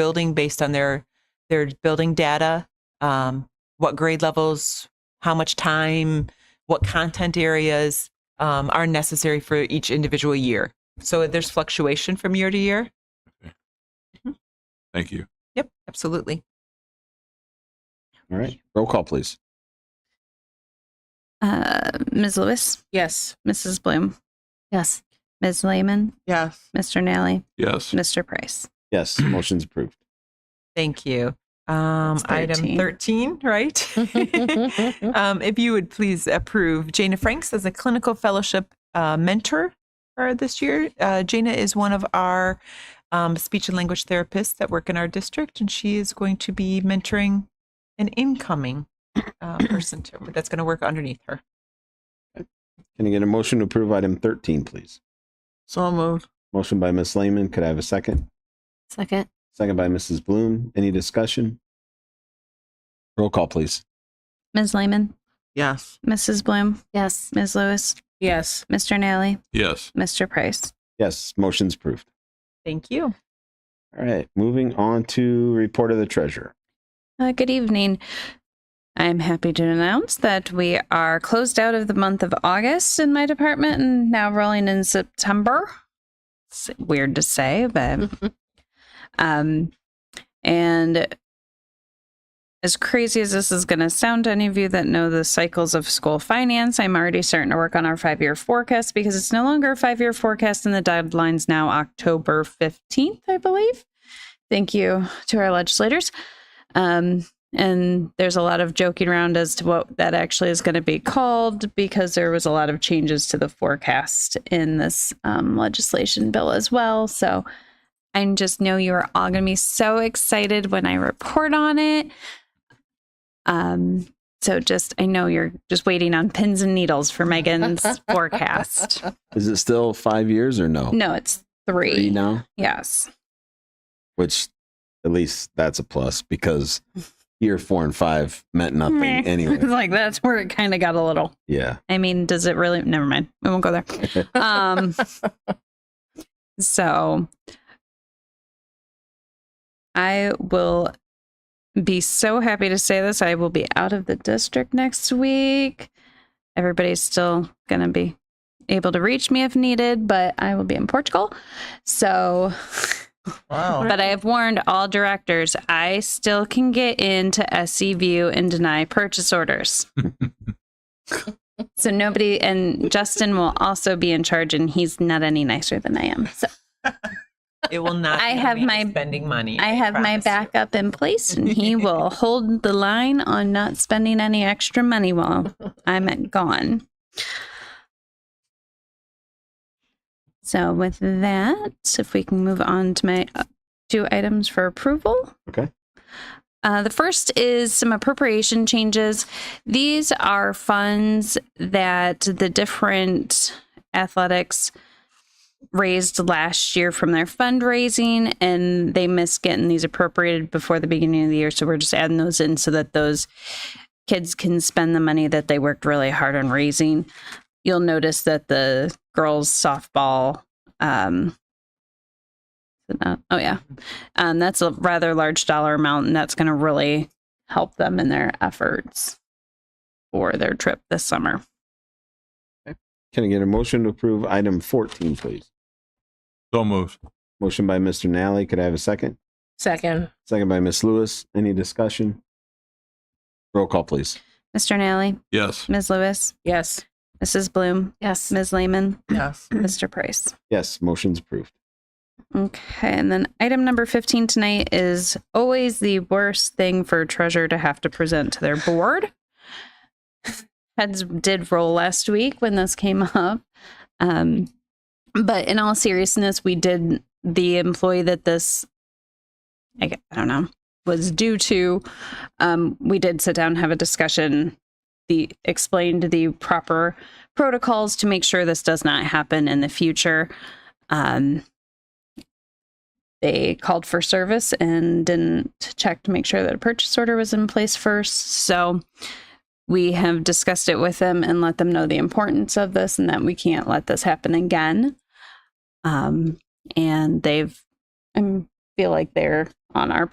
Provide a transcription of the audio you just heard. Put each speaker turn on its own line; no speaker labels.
building based on their their building data, um, what grade levels, how much time, what content areas um, are necessary for each individual year. So there's fluctuation from year to year.
Thank you.
Yep, absolutely.
All right. Roll call, please.
Uh, Ms. Lewis,
Yes.
Mrs. Bloom,
Yes.
Ms. Lehman,
Yes.
Mr. Nally,
Yes.
Mr. Price.
Yes, motion's approved.
Thank you. Um,
That's
item
13.
13, right? um, if you would please approve Jana Franks as a clinical fellowship uh, mentor for this year. Uh, Jana is one of our um, speech and language therapists that work in our district, and she is going to be mentoring an incoming uh, person to, that's going to work underneath her.
Can I get a motion to approve item 13, please?
So moved.
Motion by Ms. Lehman. Could I have a second?
Second.
Second by Mrs. Bloom. Any discussion? Roll call, please.
Ms. Lehman,
Yes.
Mrs. Bloom,
Yes.
Ms. Lewis,
Yes.
Mr. Nally,
Yes.
Mr. Price.
Yes, motion's approved.
Thank you.
All right, moving on to report of the treasurer.
Uh, good evening. I'm happy to announce that we are closed out of the month of August in my department and now rolling in September. It's weird to say, but um, and as crazy as this is going to sound to any of you that know the cycles of school finance, I'm already starting to work on our five year forecast because it's no longer a five year forecast and the deadline's now October 15th, I believe. Thank you to our legislators. Um, and there's a lot of joking around as to what that actually is going to be called because there was a lot of changes to the forecast in this um, legislation bill as well. So I just know you are all going to be so excited when I report on it. Um, so just, I know you're just waiting on pins and needles for Megan's forecast.
Is it still five years or no?
No, it's three.
Three now,
Yes.
which at least that's a plus because year four and five meant nothing
Meh. It's
anyway.
like that's where it kind of got a little
Yeah.
I mean, does it really? Never mind. We won't go there. Um, so I will be so happy to say this. I will be out of the district next week. Everybody's still going to be able to reach me if needed, but I will be in Portugal. So
Wow.
but I have warned all directors I still can get into SE View and deny purchase orders. so nobody, and Justin will also be in charge, and he's not any nicer than I am. So
It will not.
I
be
have
me
my-
spending money.
I have my
promise you.
backup in place, and he will hold the line on not spending any extra money while I'm gone. So, with that, if we can move on to my uh, two items for approval.
Okay.
Uh, the first is some appropriation changes. These are funds that the different athletics raised last year from their fundraising, and they missed getting these appropriated before the beginning of the year. So we're just adding those in so that those kids can spend the money that they worked really hard on raising. You'll notice that the girls' softball. Um, is it not- oh, yeah. Um, that's a rather large dollar amount, and that's going to really help them in their efforts for their trip this summer.
Can I get a motion to approve item 14, please?
So moved.
Motion by Mr. Nally. Could I have a second?
Second.
Second by Ms. Lewis. Any discussion? Roll call, please.
Mr. Nally,
Yes.
Ms. Lewis,
Yes.
Mrs. Bloom,
Yes.
Ms. Lehman,
Yes.
Mr. Price.
Yes, motion's approved.
Okay, and then item number 15 tonight is always the worst thing for treasurer to have to present to their board. Heads did roll last week when this came up. Um, but in all seriousness, we did the employee that this, I, gue- I don't know, was due to. Um, we did sit down, have a discussion, the explained the proper protocols to make sure this does not happen in the future. Um, they called for service and didn't check to make sure that a purchase order was in place first. So we have discussed it with them and let them know the importance of this and that we can't let this happen again. Um, and they've, I feel like they're on our